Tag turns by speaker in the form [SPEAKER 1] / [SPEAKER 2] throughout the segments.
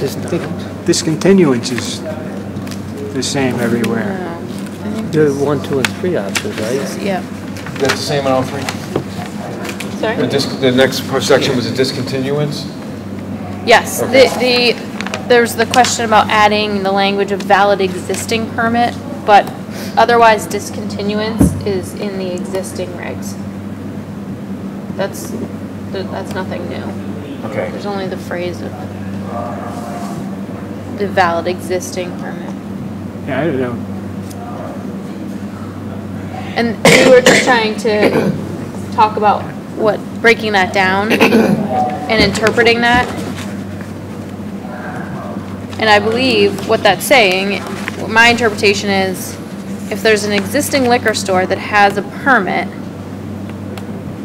[SPEAKER 1] this time.
[SPEAKER 2] Discontinuance is the same everywhere.
[SPEAKER 1] There are one, two, and three options, right?
[SPEAKER 3] Yeah.
[SPEAKER 4] That's the same on all three? The
[SPEAKER 3] Sorry?
[SPEAKER 4] dis, the next section was a discontinuance?
[SPEAKER 3] Yes,
[SPEAKER 4] Okay.
[SPEAKER 3] the, the, there's the question about adding the language of valid existing permit, but otherwise discontinuance is in the existing regs. That's, th- that's nothing new.
[SPEAKER 4] Okay.
[SPEAKER 3] There's only the phrase of the valid existing permit.
[SPEAKER 2] Yeah, I don't know.
[SPEAKER 3] And we were just trying to talk about what, breaking that down and interpreting that. And I believe what that's saying, my interpretation is, if there's an existing liquor store that has a permit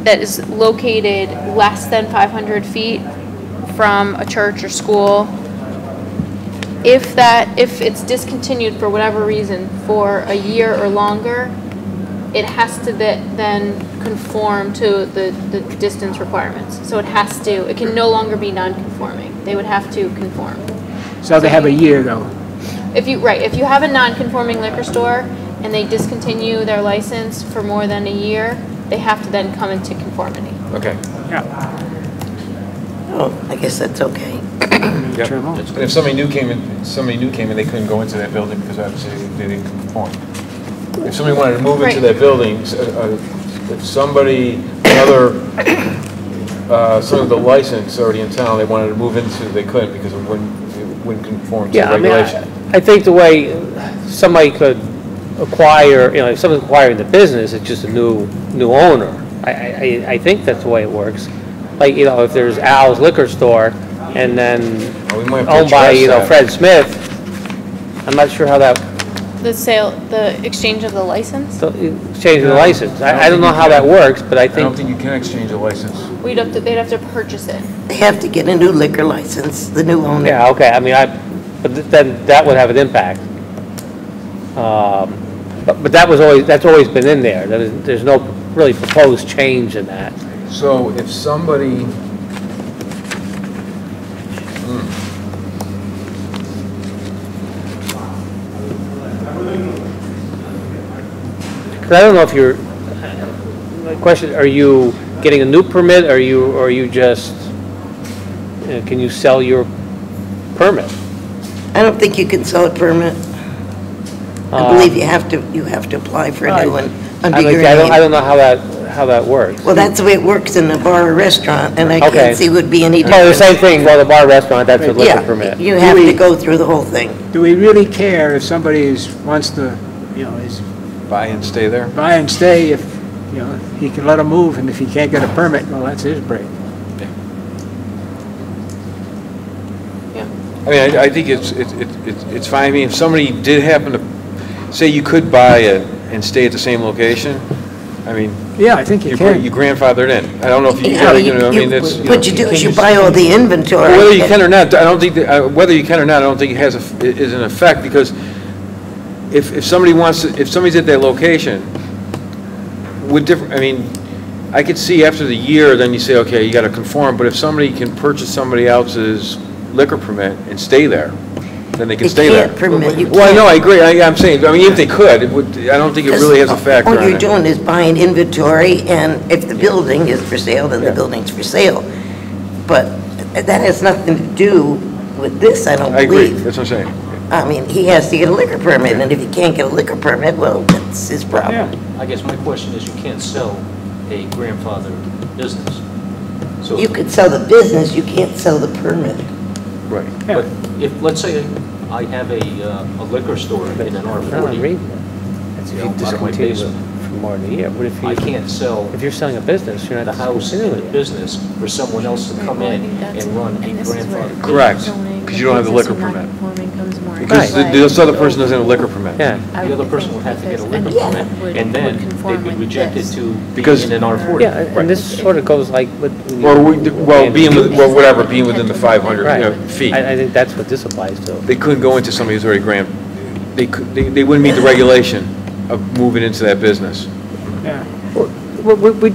[SPEAKER 3] that is located less than five hundred feet from a church or school, if that, if it's discontinued for whatever reason for a year or longer, it has to the- then conform to the, the distance requirements. So it has to, it can no longer be non-conforming. They would have to conform.
[SPEAKER 2] So they have a year, though.
[SPEAKER 3] If you, right, if you have a non-conforming liquor store and they discontinue their license for more than a year, they have to then come into conformity.
[SPEAKER 4] Okay.
[SPEAKER 2] Yeah.
[SPEAKER 5] Oh, I guess that's okay.
[SPEAKER 4] Yep.
[SPEAKER 2] Turn 'em off.
[SPEAKER 4] And if somebody new came in, somebody new came in, they couldn't go into that building because obviously they didn't conform. If somebody wanted to move into
[SPEAKER 3] Right.
[SPEAKER 4] that building, s- uh, uh, if somebody, another, uh, some of the license already in town, they wanted to move into, they couldn't because it wouldn't, it wouldn't conform to
[SPEAKER 1] Yeah, I mean,
[SPEAKER 4] regulation.
[SPEAKER 1] I- I think the way somebody could acquire, you know, if someone's acquiring the business, it's just a new, new owner. I, I, I- I think that's the way it works. Like, you know, if there's Al's Liquor Store and then
[SPEAKER 4] Well, We might have to
[SPEAKER 1] owned by,
[SPEAKER 4] address
[SPEAKER 1] you know,
[SPEAKER 4] that.
[SPEAKER 1] Fred Smith, I'm not sure how that,
[SPEAKER 3] The sale, the exchange of the license,
[SPEAKER 1] so, changing the license. I, I don't know how that works, but I
[SPEAKER 4] I
[SPEAKER 1] think,
[SPEAKER 4] don't think you can exchange a license.
[SPEAKER 3] we'd have to, they'd have to purchase it.
[SPEAKER 5] They have to get a new liquor license, the new owner.
[SPEAKER 1] yeah, okay, I mean, I, but th- then that would have an impact. Um, But, but that was always, that's always been in there. There is- There's no really proposed change in that.
[SPEAKER 4] So if somebody... Hmm.
[SPEAKER 1] Because I don't know if you're, my question, are you getting a new permit, are you, or are you just, you know, can you sell your permit?
[SPEAKER 5] I don't think you can sell a permit. I believe you have to, you have to apply for a new one under
[SPEAKER 1] Uh, Um, I
[SPEAKER 5] your
[SPEAKER 1] like- I don't, I
[SPEAKER 5] name.
[SPEAKER 1] don't know how that, how that works.
[SPEAKER 5] Well, that's the way it works in a bar or restaurant, and I
[SPEAKER 1] Okay.
[SPEAKER 5] can't see would be any
[SPEAKER 1] No, the
[SPEAKER 5] different.
[SPEAKER 1] same thing, well, the bar, restaurant, that's a liquor
[SPEAKER 5] Yeah,
[SPEAKER 1] permit.
[SPEAKER 5] you have to go through the whole thing.
[SPEAKER 2] Do we really care if somebody is, wants to, you know, is
[SPEAKER 4] Buy and stay there?
[SPEAKER 2] buy and stay if, you know, he can let him move, and if he can't get a permit, well, that's his break.
[SPEAKER 4] I mean, I, I think it's, it's, it's it's fine, I mean, if somebody did happen to, say you could buy it and stay at the same location, I mean,
[SPEAKER 2] Yeah, I think you
[SPEAKER 4] you're gra-
[SPEAKER 2] can.
[SPEAKER 4] you're grandfathered in. I don't know if you,
[SPEAKER 5] Yeah,
[SPEAKER 4] you
[SPEAKER 5] you-
[SPEAKER 4] know, I mean,
[SPEAKER 5] you-
[SPEAKER 4] it's.
[SPEAKER 5] What you do is you buy all the inventory.
[SPEAKER 4] Whether you can or not, I don't think, that- uh, whether you can or not, I don't think it has, a f- is an effect, because if, if somebody wants, to- if somebody's at that location, would different, I mean, I could see after the year, then you say, okay, you gotta conform, but if somebody can purchase somebody else's liquor permit and stay there, then they can
[SPEAKER 5] You
[SPEAKER 4] stay there.
[SPEAKER 5] can't permit, you
[SPEAKER 4] Well, I know,
[SPEAKER 5] can't.
[SPEAKER 4] I agree, I, I'm saying, I mean, if they could, it would, I don't think it really has a factor on
[SPEAKER 5] All you're
[SPEAKER 4] it.
[SPEAKER 5] doing is buying inventory, and if the building is for sale, then the building's for sale. But that has nothing to do with this, I don't
[SPEAKER 4] I agree,
[SPEAKER 5] believe.
[SPEAKER 4] that's what I'm saying.
[SPEAKER 5] I mean, he has to get a liquor permit, and if he can't get a liquor permit, well, that's his problem.
[SPEAKER 2] Yeah,
[SPEAKER 6] I guess my question is, you can't sell a grandfathered business. So,
[SPEAKER 5] You could sell the business, you can't sell the permit.
[SPEAKER 4] Right.
[SPEAKER 6] but if, let's say I have a uh, a liquor store in an
[SPEAKER 1] I don't know, I'm
[SPEAKER 6] R40,
[SPEAKER 1] reading it. That's if
[SPEAKER 6] You
[SPEAKER 1] you
[SPEAKER 6] know, out of my
[SPEAKER 1] discontinue it
[SPEAKER 6] basement.
[SPEAKER 1] for more than a year, what if you?
[SPEAKER 6] I can't sell
[SPEAKER 1] If you're selling a business, you're
[SPEAKER 6] the
[SPEAKER 1] not
[SPEAKER 6] house and the
[SPEAKER 1] discontinuing it.
[SPEAKER 6] business for someone else to come in and run a grandfathered.
[SPEAKER 4] Correct,
[SPEAKER 6] business.
[SPEAKER 4] 'cause you don't have the liquor permit. Because
[SPEAKER 1] Right.
[SPEAKER 4] the- this other person doesn't have a liquor permit.
[SPEAKER 1] Yeah,
[SPEAKER 6] The other person would have to get a liquor permit, and then they'd be rejected to
[SPEAKER 4] Because-
[SPEAKER 6] being in an R40.
[SPEAKER 1] yeah, and this sort of goes like with.
[SPEAKER 4] Or, we- well, being, with- well, whatever, being within the 500
[SPEAKER 1] Right.
[SPEAKER 4] you know, feet.
[SPEAKER 1] I, I think that's what this applies to.
[SPEAKER 4] They couldn't go into somebody who's already grand, they could, they they wouldn't meet the regulation of moving into that business.
[SPEAKER 2] yeah.
[SPEAKER 1] We, we